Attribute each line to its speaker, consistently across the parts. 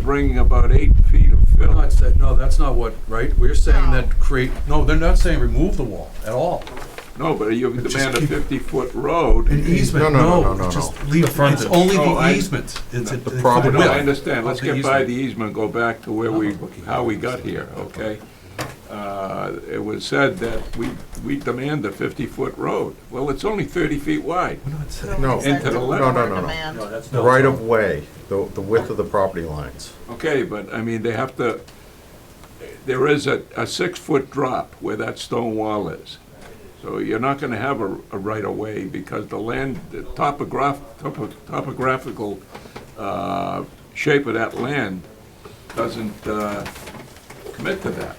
Speaker 1: bringing about eight feet of
Speaker 2: No,
Speaker 1: fill.
Speaker 2: it's that- no, that's not what, right? We're saying
Speaker 3: No.
Speaker 2: that create, no, they're not saying remove the wall at all.
Speaker 1: No, but you
Speaker 2: Just
Speaker 1: demand a
Speaker 2: keep-
Speaker 1: fifty-foot road.
Speaker 2: An easement,
Speaker 4: no, no,
Speaker 2: no,
Speaker 4: no, no,
Speaker 2: just
Speaker 4: no.
Speaker 2: leave, it's only
Speaker 1: Oh,
Speaker 2: the
Speaker 1: I-
Speaker 2: easement. It's a-
Speaker 4: The
Speaker 2: it's
Speaker 4: problem-
Speaker 1: No,
Speaker 2: width
Speaker 1: I understand, let's
Speaker 2: of
Speaker 1: get by the
Speaker 2: easement.
Speaker 1: easement, go back to where we, how we got here, okay? Uh, It was said that we, we demand a fifty-foot road. Well, it's only thirty feet wide.
Speaker 2: We're not saying-
Speaker 4: No.
Speaker 3: it's that
Speaker 1: Into the
Speaker 3: de-
Speaker 1: left. No,
Speaker 4: no, no, no.
Speaker 3: demand.
Speaker 2: No, that's
Speaker 4: The
Speaker 2: not-
Speaker 4: right of way, the, the width of the property lines.
Speaker 1: Okay, but I mean, they have to, there is a, a six-foot drop where that stone wall is. So you're not gonna have a, a right-of-way because the land, the topograph, topo- topographical, uh, shape of that land doesn't, uh, commit to that.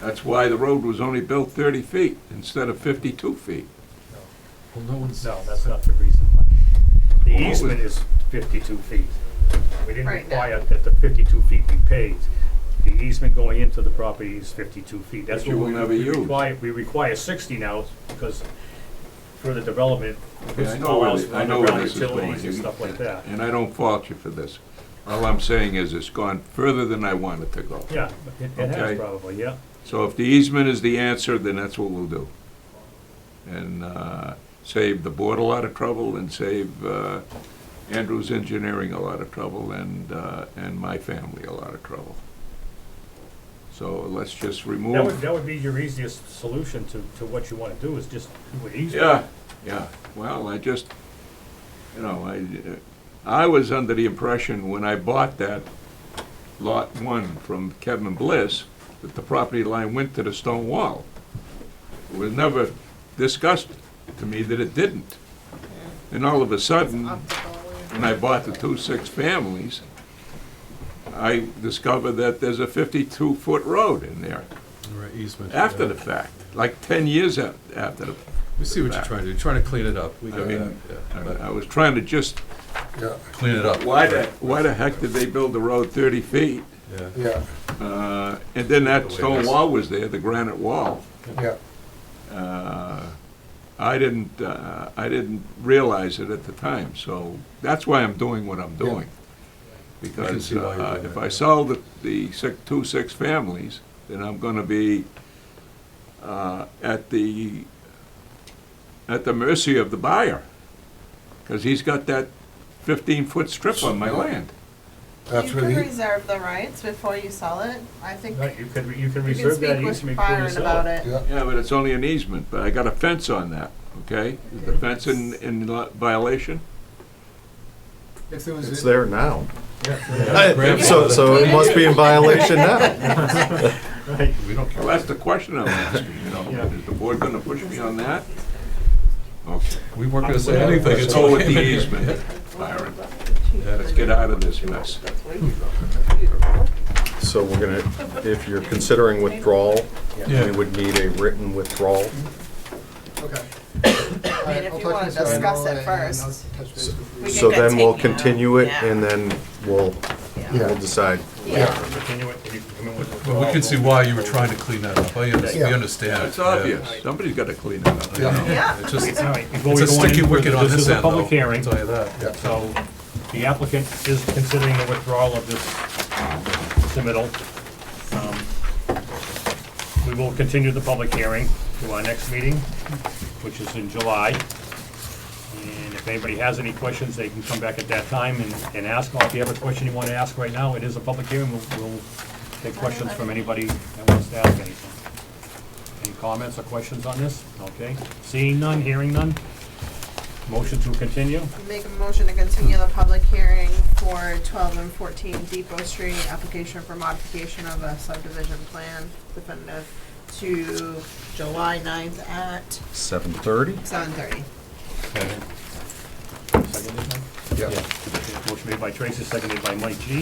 Speaker 1: That's why the road was only built thirty feet instead of fifty-two feet.
Speaker 2: Well, no one's,
Speaker 5: No, that's not the reason why. The
Speaker 1: Well, what was-
Speaker 5: easement is fifty-two feet. We didn't
Speaker 3: Right, that-
Speaker 5: require that the fifty-two feet be paved. The easement going into the property is fifty-two feet. That's
Speaker 1: But you
Speaker 5: what we
Speaker 1: will never
Speaker 5: we
Speaker 1: use.
Speaker 5: require. We require sixty now because further development
Speaker 1: Yeah, I know where,
Speaker 5: allows
Speaker 1: thi-
Speaker 5: for
Speaker 1: I know where
Speaker 5: underground
Speaker 1: this is going.
Speaker 5: utilities and stuff like that.
Speaker 1: And I don't fault you for this. All I'm saying is it's gone further than I wanted to go.
Speaker 5: Yeah, it it
Speaker 1: Okay.
Speaker 5: has probably, yeah.
Speaker 1: So if the easement is the answer, then that's what we'll do. And uh, save the board a lot of trouble and save uh, Andrews Engineering a lot of trouble and, uh, and my family a lot of trouble. So let's just
Speaker 5: That would,
Speaker 1: remove,
Speaker 5: that would be your easiest solution to, to what you wanna do is just do an easement.
Speaker 1: yeah, yeah. Well, I just, you know, I, I was under the impression when I bought that lot one from Kevin Bliss, that the property line went to the stone wall. It was never discussed to me that it didn't. And all of a sudden, when I bought the two six families, I discovered that there's a fifty-two foot road in there
Speaker 2: Or easement.
Speaker 1: after
Speaker 2: yeah.
Speaker 1: the fact, like ten years af- after the.
Speaker 2: We see what you're trying to do, trying to clean it up. We
Speaker 1: I
Speaker 2: got that,
Speaker 1: mean,
Speaker 2: yeah.
Speaker 1: I I was trying to just,
Speaker 6: Yeah,
Speaker 2: Clean it up.
Speaker 1: why the, why the heck did they build the road thirty feet?
Speaker 2: Yeah.
Speaker 6: yeah,
Speaker 1: Uh, And then that stone wall was there, the granite wall.
Speaker 6: yeah.
Speaker 1: Uh, I didn't, uh, I didn't realize it at the time, so that's why I'm doing what I'm doing. Because
Speaker 2: see why you're
Speaker 1: uh,
Speaker 2: doing
Speaker 1: if
Speaker 2: that,
Speaker 1: I
Speaker 2: yeah.
Speaker 1: sell the, the six, two six families, then I'm gonna be uh, at the, at the mercy of the buyer. Because he's got that fifteen-foot strip on my land.
Speaker 3: You
Speaker 6: That's what
Speaker 3: can
Speaker 6: he,
Speaker 3: reserve the rights before you sell it. I think
Speaker 5: Right,
Speaker 3: you
Speaker 5: you could, re- you can
Speaker 3: can
Speaker 5: reserve that
Speaker 3: speak
Speaker 5: easement
Speaker 3: with
Speaker 5: before
Speaker 3: Byron
Speaker 5: you
Speaker 3: about
Speaker 5: sell it.
Speaker 3: it.
Speaker 6: yeah,
Speaker 1: Yeah, but it's only an easement, but I got a fence on that, okay? Is the fence in, in violation?
Speaker 7: If there
Speaker 4: It's
Speaker 7: was, a-
Speaker 4: there now.
Speaker 2: Grab it.
Speaker 4: So, so it must be in violation now.
Speaker 5: Right,
Speaker 2: We
Speaker 1: Well,
Speaker 2: don't care.
Speaker 1: that's the question I'm asking, you know,
Speaker 5: Yeah.
Speaker 1: is the board gonna push me on that? Okay,
Speaker 2: We weren't gonna say anything.
Speaker 1: let's
Speaker 2: until
Speaker 1: go with
Speaker 2: we-
Speaker 1: the easement, Byron,
Speaker 2: Yeah.
Speaker 1: let's get out of this mess.
Speaker 4: So we're gonna, if you're considering withdrawal,
Speaker 2: Yeah.
Speaker 4: we would need a written withdrawal.
Speaker 7: okay.
Speaker 3: I mean, if you wanna discuss it first. We can
Speaker 4: So
Speaker 3: get
Speaker 4: then we'll
Speaker 3: taken out.
Speaker 4: continue it
Speaker 3: Yeah.
Speaker 4: and then we'll, we'll
Speaker 6: yeah,
Speaker 4: decide.
Speaker 3: Yeah.
Speaker 5: Continue it, and you can come in with.
Speaker 2: But we can see why you were trying to clean that up. I understand, we
Speaker 6: Yeah.
Speaker 2: understand.
Speaker 1: It's
Speaker 2: yeah.
Speaker 1: obvious, somebody's gotta clean it up.
Speaker 6: yeah,
Speaker 3: Yeah.
Speaker 2: It's just,
Speaker 5: All right,
Speaker 2: it's
Speaker 5: before we
Speaker 2: a
Speaker 5: go any
Speaker 2: sticky
Speaker 5: further,
Speaker 2: wicket on this
Speaker 5: This is a
Speaker 2: end, though.
Speaker 5: public hearing,
Speaker 2: I'll tell you that.
Speaker 6: yeah.
Speaker 5: so the applicant is considering the withdrawal of this submittal. Um, We will continue the public hearing to our next meeting, which is in July. And if anybody has any questions, they can come back at that time and, and ask. Or if you have a question you want to ask right now, it is a public hearing, we'll, we'll take questions from anybody that wants to ask anything. Any comments or questions on this? Okay. Seeing none, hearing none. Motion to continue.
Speaker 3: Make a motion to continue the public hearing for twelve and fourteen Depot Street, application for modification of a subdivision plan definitive to July 9th at
Speaker 4: Seven thirty?
Speaker 3: seven thirty.
Speaker 5: Second.
Speaker 6: yeah.
Speaker 5: Motion made by Tracy, seconded by Mike G.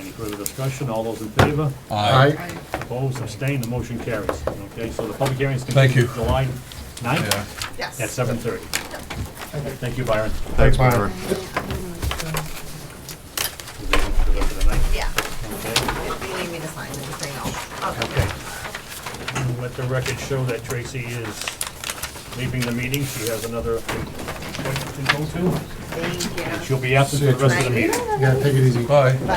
Speaker 5: Any further discussion? All those in favor?
Speaker 2: Aye.
Speaker 6: I,
Speaker 5: Opposed, abstained, the motion carries. Okay, so the public hearing is
Speaker 2: Thank
Speaker 5: continued
Speaker 2: you.
Speaker 5: to July
Speaker 2: Yeah.
Speaker 5: 9th
Speaker 3: Yes.
Speaker 5: at seven thirty. Thank you, Byron.
Speaker 4: Thanks, Byron.
Speaker 5: Good luck for the night.
Speaker 3: Yeah,
Speaker 5: Okay.
Speaker 3: if you need me to sign anything, I'll, I'll come
Speaker 5: Okay. And Let the record show that Tracy is leaving the meeting. She has another appointment to go to.
Speaker 3: Thank you.
Speaker 5: She'll be absent for the rest of the meeting.
Speaker 6: yeah, take it easy.
Speaker 2: Bye.